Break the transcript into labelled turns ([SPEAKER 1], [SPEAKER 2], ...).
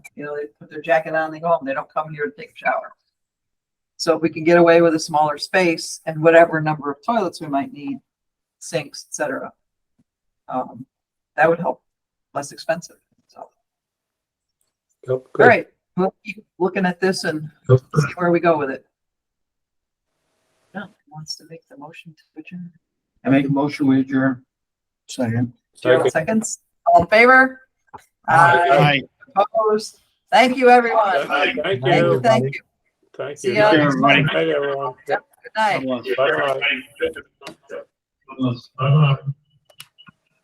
[SPEAKER 1] You know, they put their jacket on, they go home, they don't come here to take a shower. So if we can get away with a smaller space and whatever number of toilets we might need, sinks, et cetera. Um, that would help, less expensive, so.
[SPEAKER 2] Yep,
[SPEAKER 1] All
[SPEAKER 2] good.
[SPEAKER 1] right, we'll keep looking at this and
[SPEAKER 2] Yep.
[SPEAKER 1] see where we go with it. Yeah, who Wants to make the motion to adjourn.
[SPEAKER 3] I make a motion with your second.
[SPEAKER 1] Gerald
[SPEAKER 2] Second.
[SPEAKER 1] seconds, all in favor? Aye.
[SPEAKER 4] Aye.
[SPEAKER 1] Opposed? Thank you, everyone.
[SPEAKER 4] Aye.
[SPEAKER 2] Thank
[SPEAKER 1] Thank you,
[SPEAKER 2] you,
[SPEAKER 1] thank you.
[SPEAKER 2] thank
[SPEAKER 1] See
[SPEAKER 2] you.
[SPEAKER 1] ya.
[SPEAKER 2] Night,
[SPEAKER 3] everybody.
[SPEAKER 2] everyone.
[SPEAKER 1] Good night.
[SPEAKER 2] Bye-bye.
[SPEAKER 4] Bye-bye.